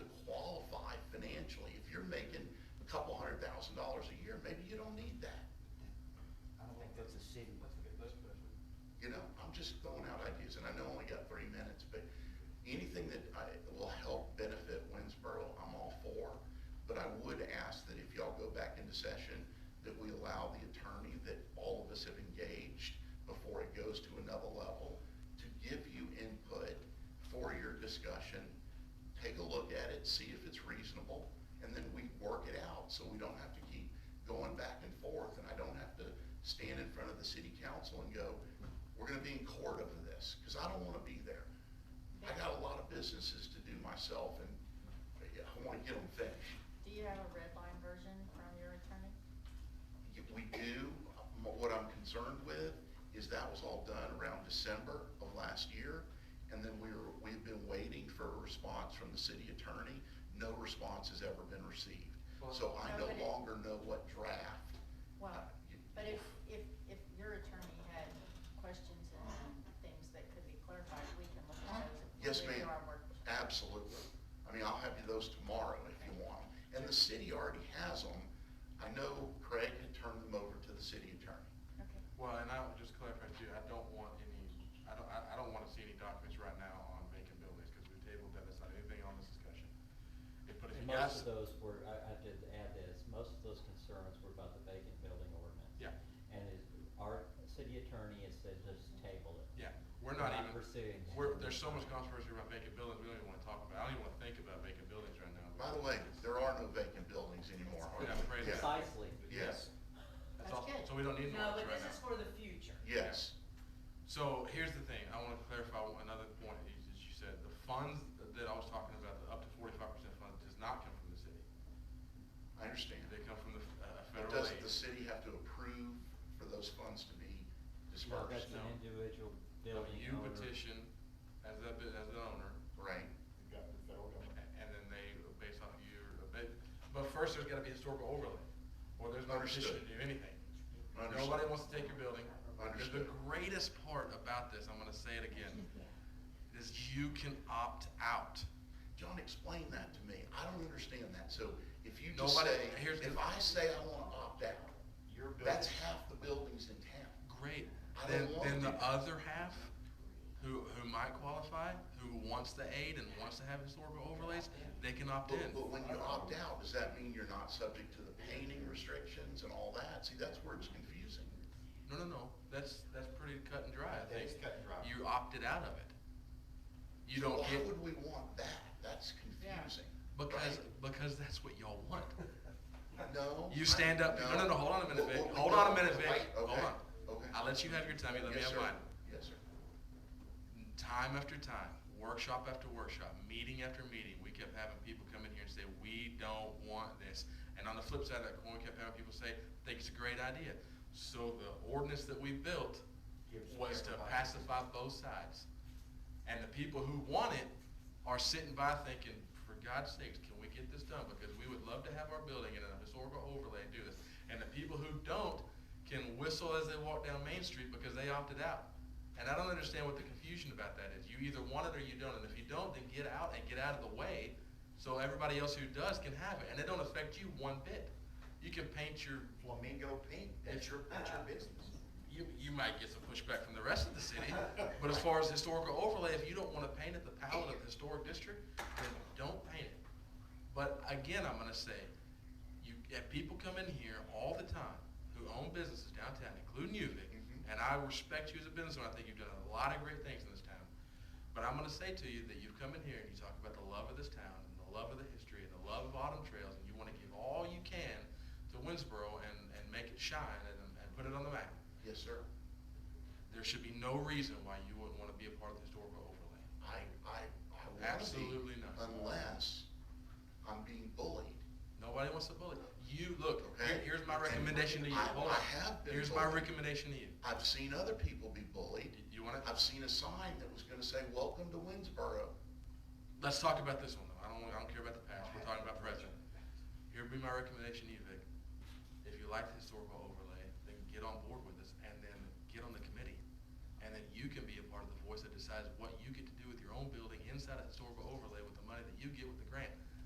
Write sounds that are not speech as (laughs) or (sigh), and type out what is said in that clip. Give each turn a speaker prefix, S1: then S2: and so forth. S1: thousand dollars a year, maybe you don't need that.
S2: I don't think that's a city.
S3: That's a good list, President.
S1: You know, I'm just throwing out ideas, and I know I only got three minutes, but anything that I, will help benefit Winsboro, I'm all for. But I would ask that if y'all go back into session, that we allow the attorney that all of us have engaged before it goes to another level, to give you input for your discussion, take a look at it, see if it's reasonable, and then we work it out, so we don't have to keep going back and forth, and I don't have to stand in front of the city council and go, we're gonna be in court over this, because I don't wanna be there. I got a lot of businesses to do myself, and yeah, I wanna get them finished.
S4: Do you have a red line version from your attorney?
S1: If We do, m- what I'm concerned with is that was all done around December of last year, and then we were, we've been waiting for a response from the city attorney. No response has ever been received, so I no
S4: Well-
S1: longer know what draft. uh,
S4: Well, but if, if, if your attorney had questions and things that could be clarified, we can look at those. if we
S1: Yes,
S4: do
S1: ma'am.
S4: our work.
S1: Absolutely. I mean, I'll have you those tomorrow if you want 'em. And the city already has them. I know Craig had turned them over to the city attorney.
S4: Okay.
S3: Well, and I would just clarify too, I don't want any, I don't, I, I don't wanna see any documents right now on vacant buildings, cause we tabled that, that's not anything on this discussion. If- But if you
S2: And
S3: guys.
S2: most of those were, I, I did add this, most of those concerns were about the vacant building ordinance.
S3: Yeah.
S2: And is, our city attorney has said just table it.
S3: Yeah, we're not even.
S2: pursuing.
S3: We're, there's so much controversy around vacant buildings, we don't even wanna talk about, I don't even wanna think about vacant buildings right now.
S1: By the way, there are no vacant buildings anymore, are
S3: oh, Yeah,
S1: there?
S3: praise
S1: Yeah.
S3: God.
S2: Precisely.
S1: Yes,
S4: That's
S3: all.
S4: good.
S3: So we don't need
S5: No,
S3: more
S5: but
S3: right
S5: this is
S3: now.
S5: for the future.
S1: yes.
S3: So here's the thing, I wanna clarify one- another point that you- that you said, the funds that I was talking about, the up to forty-five percent fund does not come from the city.
S1: I understand.
S3: They come from the, f- uh,
S1: But
S3: federal
S1: doesn't
S3: aid.
S1: the city have to approve for those funds to be
S2: No,
S1: dispersed?
S2: that's an
S3: no.
S2: individual
S3: No,
S2: building
S3: You
S2: owner.
S3: petition as the, bu- as the owner,
S1: Right?
S3: a- and then they, based on your, but, but first there's gotta be historical overlay, or there's no petition to
S1: Understood.
S3: do anything.
S1: Understood.
S3: Nobody wants to take your building.
S1: Understood.
S3: The greatest part about this, I'm gonna say it again, is you can opt out.
S1: John, explain that to me. I don't understand that. So if you just
S3: Nobody-
S1: say,
S3: here's the-
S1: if I say I wanna opt out, that's half the buildings in town.
S3: Great.
S1: I
S3: Then,
S1: don't want
S3: then the
S1: to.
S3: other half, who, who might qualify, who wants the aid and wants to have historical overlays, they can opt in.
S1: But, but when you opt out, does that mean you're not subject to the painting restrictions and all that? See, that's where it's confusing.
S3: No, no, no, that's, that's pretty cut and dry, I
S6: That
S3: think.
S6: is cut and dry.
S3: You opted out of it. You
S1: So
S3: don't
S1: Why
S3: get,
S1: would we want that? That's confusing.
S3: because,
S1: right?
S3: because that's what y'all
S6: (laughs)
S3: want.
S1: No.
S3: You
S1: I-
S3: stand up, no, no, no, hold on a minute,
S1: Well,
S3: Vic,
S1: well,
S3: hold
S1: no,
S3: on a minute, Vic,
S1: wait,
S3: hold
S1: okay,
S3: on.
S1: Okay.
S3: I'll let you have your time, you let me
S1: Yes,
S3: have
S1: sir.
S3: mine.
S1: Yes, sir.
S3: Time after time, workshop after workshop, meeting after meeting, we kept having people come in here and say, we don't want this. And on the flip side of that coin, we kept having people say, think it's a great idea. So the ordinance that we built
S6: Gives
S3: was to
S6: everybody-
S3: pacify both sides. And the people who want it are sitting by thinking, for God's sakes, can we get this done? Because we would love to have our building in a historical overlay and do this. And the people who don't can whistle as they walk down Main Street because they opted out. And I don't understand what the confusion about that is. You either want it or you don't, and if you don't, then get out and get out of the way so everybody else who does can have it, and it don't affect you one bit. You can paint your
S6: Flamingo pink, that's your, that's your business.
S3: you, you might get some pushback from the rest of the city, but as far as historical overlay, if you don't wanna paint it the palette of the historic district, then don't paint it. But again, I'm gonna say, you, if people come in here all the time who own businesses downtown, including you, Vic,
S1: Mhm.
S3: and I respect you as a business owner, I think you've done a lot of great things in this town. But I'm gonna say to you that you've come in here and you talk about the love of this town, and the love of the history, and the love of autumn trails, and you wanna give all you can to Winsboro and, and make it shine and, and put it on the map
S1: Yes, sir.
S3: there should be no reason why you wouldn't want to be a part of the historical overlay.
S1: I, I, I wanna be.
S3: Absolutely not.
S1: Unless I'm being bullied.
S3: Nobody wants to bully. You, look, here-
S1: Okay.
S3: here's my recommendation to you.
S1: I-
S3: Hold on.
S1: I have been
S3: Here's my
S1: bullied.
S3: recommendation to you.
S1: I've seen other people be bullied.
S3: You- You want to,
S1: I've seen a sign that was gonna say, welcome to Winsboro.
S3: let's talk about this one though. I don't, I don't care about the past. We're talking about present. Here'd be my recommendation to you, Vic. If you like the historical overlay, then get on board with us and then get on the committee. And then you can be a part of the voice that decides what you get to do with your own building inside of historical overlay.